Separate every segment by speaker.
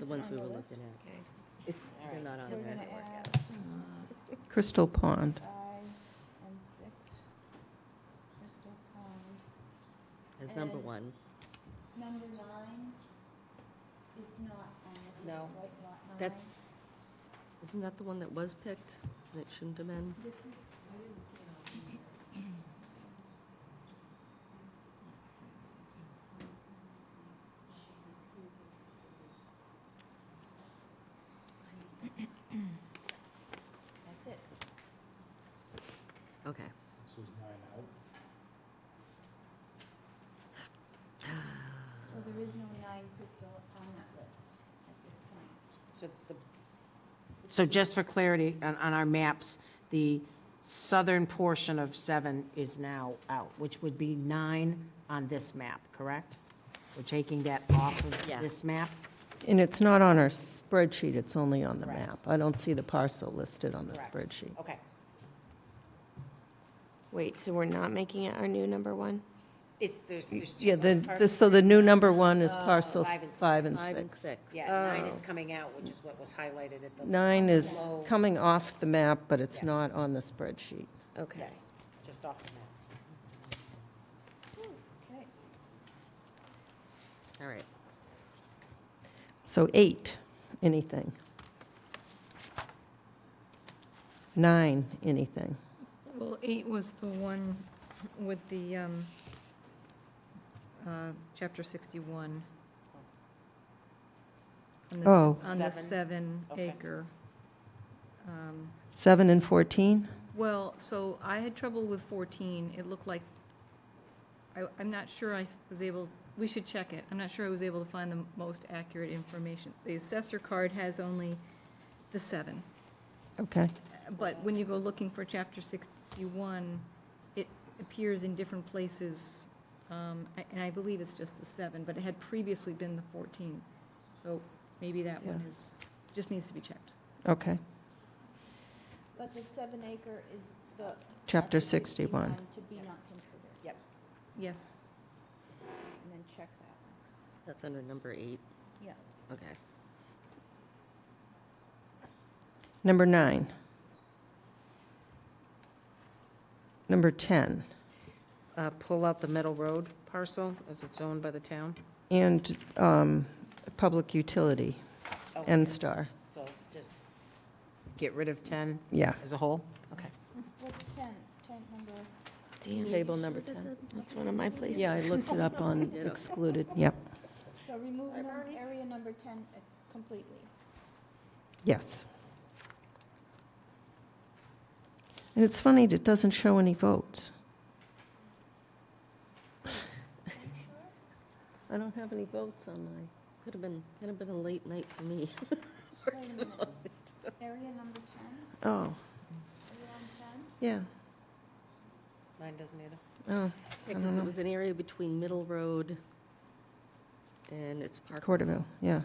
Speaker 1: the ones we were looking at.
Speaker 2: Okay.
Speaker 1: If they're not on
Speaker 3: We're
Speaker 1: there.
Speaker 3: gonna add
Speaker 4: Crystal Pond.
Speaker 3: five and six. Crystal Pond.
Speaker 1: As number
Speaker 3: And-
Speaker 1: one.
Speaker 3: Number nine is not on it. Is
Speaker 1: No.
Speaker 3: it White lot nine.
Speaker 1: That's, isn't that the one that was picked? and It shouldn't have been?
Speaker 3: This is, that's it.
Speaker 1: Okay.
Speaker 5: So is nine out?
Speaker 3: So there is no nine crystal on that list at this point.
Speaker 2: So just for clarity, on, on our maps, the southern portion of seven is now out, which would be nine on this map, correct? We're taking that off
Speaker 1: Yeah.
Speaker 2: of this map?
Speaker 4: And it's not on our spreadsheet, it's only on the
Speaker 2: Correct.
Speaker 4: map. I don't see the parcel listed on the
Speaker 2: Correct.
Speaker 4: spreadsheet.
Speaker 2: Okay.
Speaker 6: Wait, so we're not making it our new number one?
Speaker 2: It's, there's, there's two.
Speaker 4: Yeah, the,
Speaker 2: other
Speaker 4: the, so the new number one is
Speaker 2: Oh,
Speaker 4: parcel
Speaker 2: five and
Speaker 4: five and
Speaker 1: Five and
Speaker 4: six.
Speaker 1: six.
Speaker 2: parts. Yeah, nine is
Speaker 6: Oh.
Speaker 2: coming out, which is what was highlighted at the.
Speaker 4: Nine is
Speaker 2: low-
Speaker 4: coming off the map, but it's
Speaker 2: Yeah.
Speaker 4: not on the spreadsheet.
Speaker 1: Okay.
Speaker 2: Yes, just off the map.
Speaker 3: Okay.
Speaker 1: All right.
Speaker 4: So eight, anything. Nine, anything.
Speaker 7: Well, eight was the one with the, um, uh, chapter 61. On the-
Speaker 4: Oh.
Speaker 7: On the
Speaker 2: Seven.
Speaker 7: seven
Speaker 2: Okay.
Speaker 7: acre. Um,
Speaker 4: Seven and 14?
Speaker 7: Well, so I had trouble with 14. It looked like, I, I'm not sure I was able, we should check it. I'm not sure I was able to find the most accurate information. The assessor card has only the seven.
Speaker 4: Okay.
Speaker 7: But when you go looking for chapter 61, it appears in different places, um, a- and I believe it's just the seven, but it had previously been the 14. So maybe that one
Speaker 4: Yeah.
Speaker 7: is, just needs to be checked.
Speaker 4: Okay.
Speaker 3: But the seven acre is the.
Speaker 4: Chapter 61.
Speaker 3: To be not considered,
Speaker 7: Yes.
Speaker 3: and then check that
Speaker 1: That's under number eight.
Speaker 3: one. Yeah.
Speaker 1: Okay.
Speaker 4: Number nine. Number 10.
Speaker 2: Uh, pull out the Meadow Road parcel as it's owned by the town.
Speaker 4: And um, public utility,
Speaker 2: Oh,
Speaker 4: N-Star.
Speaker 2: So just get rid of ten
Speaker 4: Yeah.
Speaker 2: as a whole? Okay.
Speaker 3: What's ten, ten number?
Speaker 4: Table number 10.
Speaker 6: That's one of my places.
Speaker 4: Yeah, I looked it up on excluded. Yep.
Speaker 3: So remove num- area number ten uh, completely.
Speaker 4: Yes. And it's funny, it doesn't show any votes. I don't have any votes on mine.
Speaker 1: Could have been, could have been a late night for me.
Speaker 3: Wait a minute. Area number ten,
Speaker 4: Oh,
Speaker 3: are you on ten?
Speaker 4: yeah.
Speaker 2: Mine doesn't either.
Speaker 4: Oh, don't
Speaker 1: Because
Speaker 4: know.
Speaker 3: uh-huh.
Speaker 1: it was an area between Middle Road and it's Park.
Speaker 4: Corderville, yeah.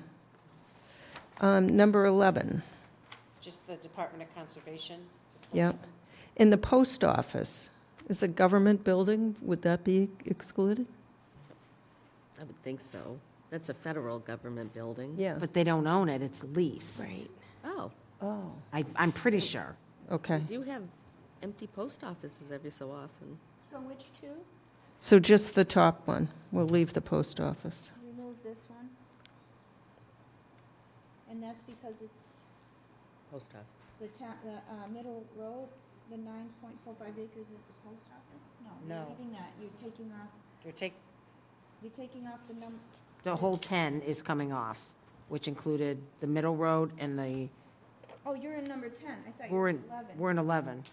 Speaker 4: Um, Number 11,
Speaker 2: Just the Department of Conservation.
Speaker 4: yep. In the post office, is a government building, would that be excluded?
Speaker 1: I would think so. That's a federal government building.
Speaker 4: Yeah.
Speaker 2: But they don't own it, it's leased.
Speaker 6: Right.
Speaker 1: Oh,
Speaker 4: Oh,
Speaker 2: I, I'm pretty sure.
Speaker 1: we
Speaker 4: okay.
Speaker 1: do have empty post offices every so often.
Speaker 3: So which two?
Speaker 4: So just the top one, we'll leave the post office.
Speaker 3: Remove this one. And that's because it's
Speaker 1: Post office.
Speaker 3: the ta, the, uh, middle road, the nine point four five acres is the post office? No,
Speaker 2: No.
Speaker 3: you're leaving that, you're taking off,
Speaker 2: You're take,
Speaker 3: you're taking off the num,
Speaker 2: the whole ten is coming off, which included the Middle Road and the,
Speaker 3: oh, you're in number ten, I thought you
Speaker 2: we're
Speaker 3: were
Speaker 2: in,
Speaker 3: eleven.
Speaker 2: we're in eleven.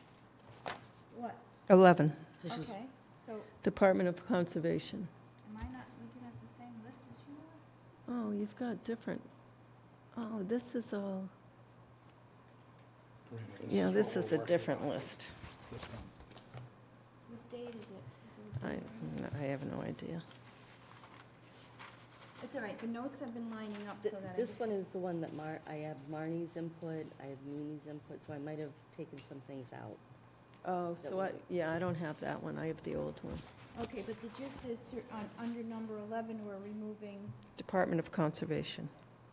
Speaker 3: What,
Speaker 4: 11,
Speaker 1: So she's-
Speaker 3: okay, so
Speaker 4: Department of Conservation.
Speaker 3: am I not looking at the same list as you are?
Speaker 4: Oh, you've got different, oh, this is all, yeah, this is a different list.
Speaker 5: This one.
Speaker 3: What date is it? Is it a
Speaker 4: I,
Speaker 3: date?
Speaker 4: I have no idea.
Speaker 3: It's all right, the notes have been lining up
Speaker 1: Th-
Speaker 3: so that I
Speaker 1: This
Speaker 3: just.
Speaker 1: one is the one that Mar, I have Marnie's input, I have Mimi's input, so I might have taken some things out.
Speaker 4: Oh,
Speaker 1: That so I- one.
Speaker 4: yeah, I don't have that one, I have the old one.
Speaker 3: Okay, but the gist is to, on, under number eleven, we're removing,
Speaker 4: Department of Conservation.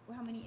Speaker 3: well, how many